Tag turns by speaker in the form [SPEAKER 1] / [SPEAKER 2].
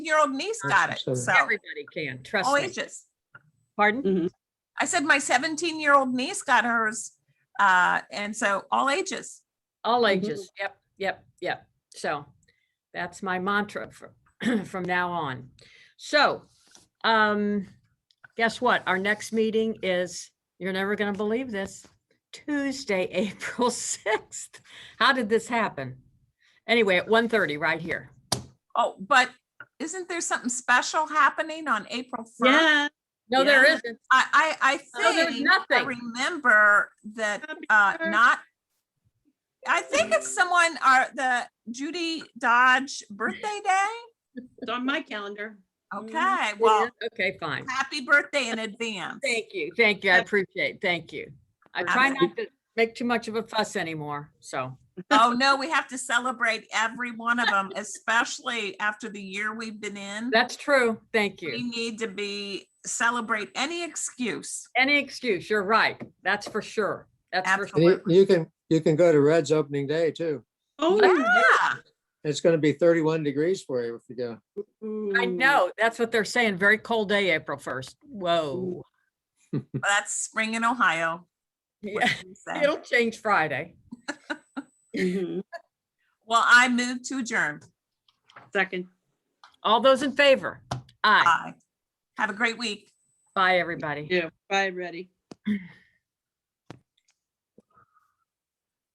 [SPEAKER 1] year old niece got it. So,
[SPEAKER 2] Everybody can, trust
[SPEAKER 1] all
[SPEAKER 2] me.
[SPEAKER 1] ages.
[SPEAKER 2] Pardon?
[SPEAKER 1] I said my 17 year old niece got hers. Uh, and so all ages.
[SPEAKER 2] All ages. Yep, yep, yep. So that's my mantra from, from now on. So, um, guess what? Our next meeting is, you're never going to believe this, Tuesday, April 6th. How did this happen? Anyway, at 1:30 right here.
[SPEAKER 1] Oh, but isn't there something special happening on April 1st?
[SPEAKER 3] Yeah,
[SPEAKER 2] No, there
[SPEAKER 1] Yeah.
[SPEAKER 2] isn't.
[SPEAKER 1] I, I, I
[SPEAKER 2] No, Oh, there's
[SPEAKER 1] think, I
[SPEAKER 2] nothing.
[SPEAKER 1] remember that, uh,
[SPEAKER 3] Happy
[SPEAKER 1] not, I think it's someone, our, the Judy Dodge birthday day.
[SPEAKER 3] it's on my calendar.
[SPEAKER 2] Mm-hmm.
[SPEAKER 1] Okay,
[SPEAKER 2] It
[SPEAKER 1] well,
[SPEAKER 2] is? Okay, fine.
[SPEAKER 1] happy birthday in advance.
[SPEAKER 2] Thank you, thank you. I appreciate, it. thank you. I try
[SPEAKER 1] Absolutely.
[SPEAKER 2] not to make too much of a fuss anymore, so.
[SPEAKER 1] Oh, no, we have to celebrate every one of them, especially after the year we've been in.
[SPEAKER 2] That's true. Thank
[SPEAKER 1] We
[SPEAKER 2] you.
[SPEAKER 1] need to be, celebrate any excuse.
[SPEAKER 2] Any excuse, you're right. That's for sure. That's for
[SPEAKER 1] Absolutely.
[SPEAKER 2] sure.
[SPEAKER 4] You you can, you can go to Red's opening day too.
[SPEAKER 3] Oh,
[SPEAKER 1] Yeah,
[SPEAKER 4] It's gonna be thirty-one degrees for you if you go.
[SPEAKER 2] I know, that's what they're saying. Very cold day, April first. Whoa.
[SPEAKER 1] that's spring in Ohio. what
[SPEAKER 2] Yeah,
[SPEAKER 1] can you say?
[SPEAKER 2] it'll change Friday.
[SPEAKER 3] Mhm.
[SPEAKER 1] Well, I move to adjourn.
[SPEAKER 3] Second.
[SPEAKER 2] All those in favor? Aye.
[SPEAKER 1] Aye. Have a great week.
[SPEAKER 2] Bye, everybody.
[SPEAKER 3] Yeah, bye, ready.